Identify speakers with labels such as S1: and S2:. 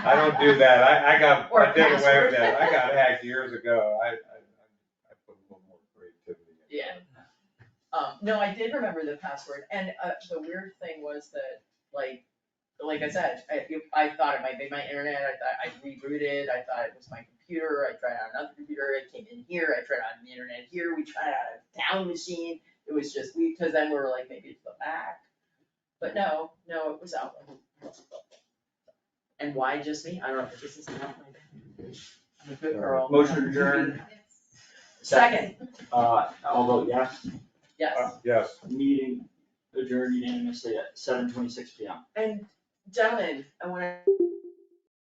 S1: I don't do that, I, I got,
S2: Or
S1: I did away
S2: password.
S1: with that, I got hacked years ago, I, I, I put a little more creativity. in it.
S2: Um, no, I did remember the password, and, uh, the weird thing was that, like, like I said, I, if- I thought it might be my internet, I thought I rebooted, I thought it was my computer, I tried on another computer, it came in here, I tried on the internet here, we tried on a town machine, it was just, we, cause then we were like, maybe it's the Mac. But no, no, it was Outlook. And why just me? I don't know, but this is not my bad. I'm a good girl.
S3: Motion adjourned,
S2: Second,
S3: uh, although, yes,
S2: yes.
S1: Uh, Yes,
S3: meeting adjourned unanimously at seven twenty-six P M.
S2: And gentlemen, I wanna